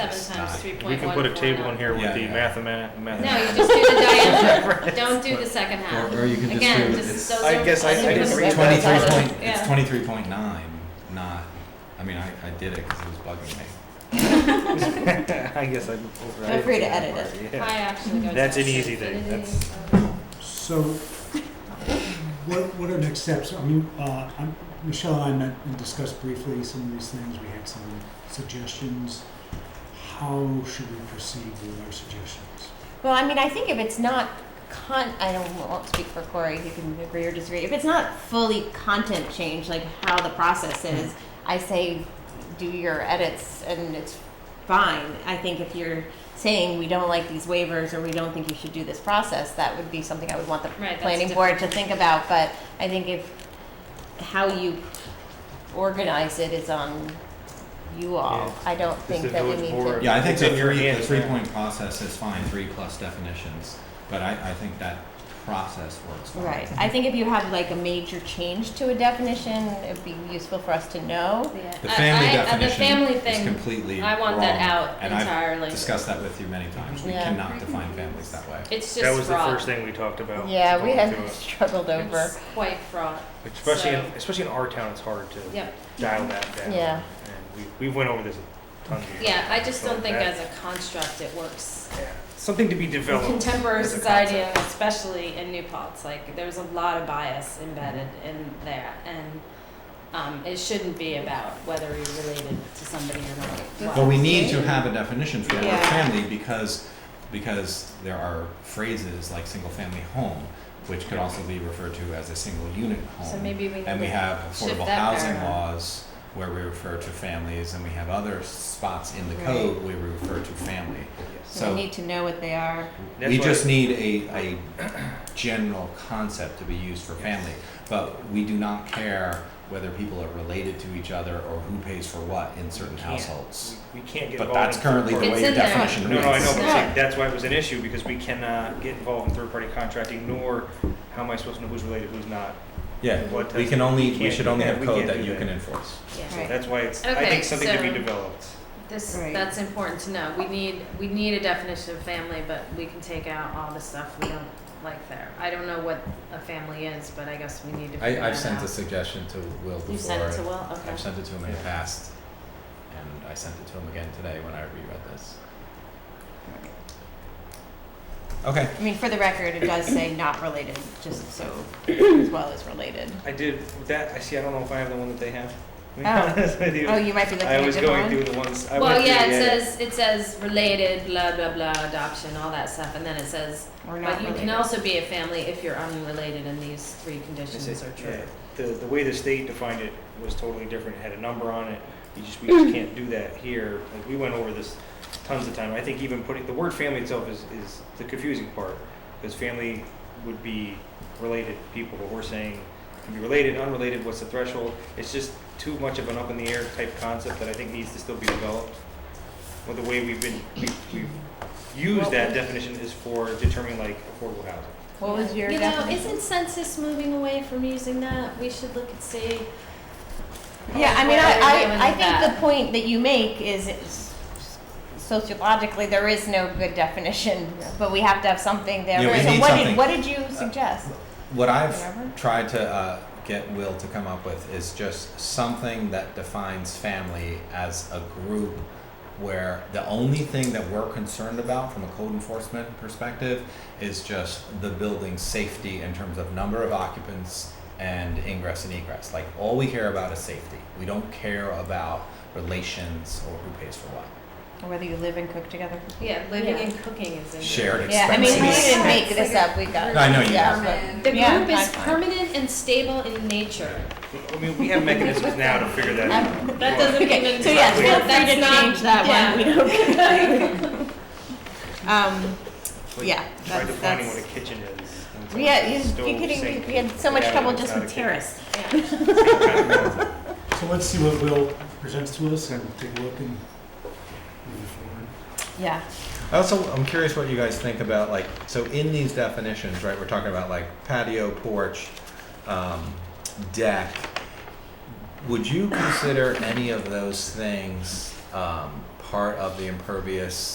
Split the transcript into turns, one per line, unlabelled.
Seven times three
We
point one four.
can put a table in here with
Yeah,
the
yeah.
mathematics.
No, you just do the diameter, don't do the second half.
Or- or you can just
Again,
do it
this-
as-
those
I
are-
guess I-
those
I
are
didn't
just
read
numbers.
Twenty-three point, it's
Yeah.
twenty-three point nine, not, I mean, I, I did it because it was bugging me.
I guess I.
Feel free to edit it.
Yeah.
I actually go.
That's
to
an easy thing.
infinity.
That's-
So, what, what are next steps? I mean, uh, I'm- Michelle and I met and discussed briefly some of these things. We had some suggestions. How should we proceed with our suggestions?
Well, I mean, I think if it's not con, I don't won't speak for Corey. If you can agree or disagree, if it's not fully content change, like how the process is, I say do your edits and it's fine. I think if you're saying we don't like these waivers or we don't think you should do this process, that would be something I would want the
Right, that's
planning board to think about. But I think if how you organize it is on you all. I don't
It's the
think that we
village
need
board.
to.
Or
Yeah, I think
it's
the
in your
three, the
hands, yeah.
three-point process is fine, three plus definitions, but I, I think that process works fine.
Right. I think if you have like a major change to a definition, it'd be useful for us to know.
Yeah.
The
I-
family
I- uh, The family
definition is
thing,
completely
I want that
wrong,
out
and I've
entirely.
Discussed that with you many times, we
Yeah.
cannot define families that way.
it's
That was
just
the first
fraught.
thing we talked about.
Yeah, we
going
had
through it.
struggled over.
It's quite fraught.
Especially, in-
so-
especially in our town, it's hard to
Yep.
dial that down.
Yeah.
And we, we went over this tons of.
Yeah, I just
So
don't think
that-
as a construct it works.
yeah. Something to be
In
developed.
contemporary
as a
society,
concept.
and especially in New Paltz, like there's a lot of bias embedded in there, and um, it shouldn't be about whether you're related to somebody or not.
But we need to have a definition for the word
Yeah.
family because, because there are phrases like single-family home, which could also be referred to as a single-unit home.
So maybe we
And we
need to
have
shift
affordable
that
housing
paradigm.
laws where we refer to families, and we have other spots in the
Right.
code where we refer to family.
Yes.
We
So
need to know what they are.
That's
we
why-
just need a, a general concept to be used for family. But we do not care whether people are related to each other or who pays for what in certain
Yeah.
households.
We we can't get
But
involved.
that's
in
currently the
third-party-
It's
way your
in there.
definition
No,
reads.
no, I know, but I'm saying
Yeah.
that's why it was an issue, because we cannot get involved in third-party contracting, nor how am I supposed to know who's related, who's not. What
Yeah, we
does-
can
we
only, we
can't
should
do
only
that.
have
We
code
can't
that
do
you
that.
can enforce.
Yeah.
So
Right.
that's why it's, I
Okay,
think something to be
so-
developed.
This,
Right.
that's important to know. We need, we need a definition of family, but we can take out all the stuff we don't like there. I don't know what a family is, but I guess we need to figure
I,
that out.
I've sent a suggestion to Will before.
You sent it to Will, okay.
I've sent it to him in the
Yeah.
past, and I sent it to him again today when I reread this. Okay.
I mean, for the record, it does say not related, just so as well as related.
I did, with that, I see, I don't know if I have the one that they have. To be
Oh.
honest with you.
Oh, you might be looking
I
at a
was
different
going through
one.
the ones, I went
Well,
through,
yeah, it
yeah,
says, it says related, blah, blah, blah, adoption, all that stuff, and then it says,
Or not
but you can
related.
also be a family if you're unrelated and these three conditions
Is it-
are
yeah.
true.
The, the way the state defined it was totally different, it had a number on it, you just, we just can't do that here. Like, we went over this tons of time, I think even putting, the word family itself is, is the confusing part, because family would be related people, but we're saying, can be related, unrelated, what's the threshold? It's just too much of an up in the air type concept that I think needs to still be developed. Well, the way we've been, we've, we've used that definition is for determining like affordable housing.
What was your
You know,
definition?
isn't census moving away from using that? We should look and see.
Yeah, I mean,
Where they're doing
I, I, I
that.
think the point that you make is it's- sociologically, there is no good definition, but we have to have something there.
Yeah, we
So
need
what did-
something.
What did you suggest?
What
Whatever.
I've tried to uh, get Will to come up with is just something that defines family as a group where the only thing that we're concerned about from a code enforcement perspective is just the building's safety in terms of number of occupants and ingress and egress. Like all we care about is safety. We don't care about relations or who pays for what.
Whether you live and cook together?
Yeah, living
Yeah.
and cooking is in there.
Shared
Yeah, I mean,
expenses.
we didn't
Expenses.
make this up, we got.
I know you
yeah,
didn't.
but-
The
Yeah,
group is
that's fine.
permanent and stable in nature.
I mean, we have mechanisms now to figure
Um,
that out.
That doesn't
Okay,
even.
so yes,
feel
free to change that one. We Um,
Like,
yeah,
Try
that's-
defining
that's-
what a kitchen is. and
we had,
it's
you-
stove,
you kidding,
sink,
we had so much
yeah,
trouble
it's
just
not
with
a kitchen.
terrace.
Yeah.
So let's see what Will presents to us and take a look and move forward.
Yeah,
I also, I'm curious what you guys think about, like, so in these definitions, right, we're talking about like patio, porch, um, deck. Would you consider any of those things um, part of the impervious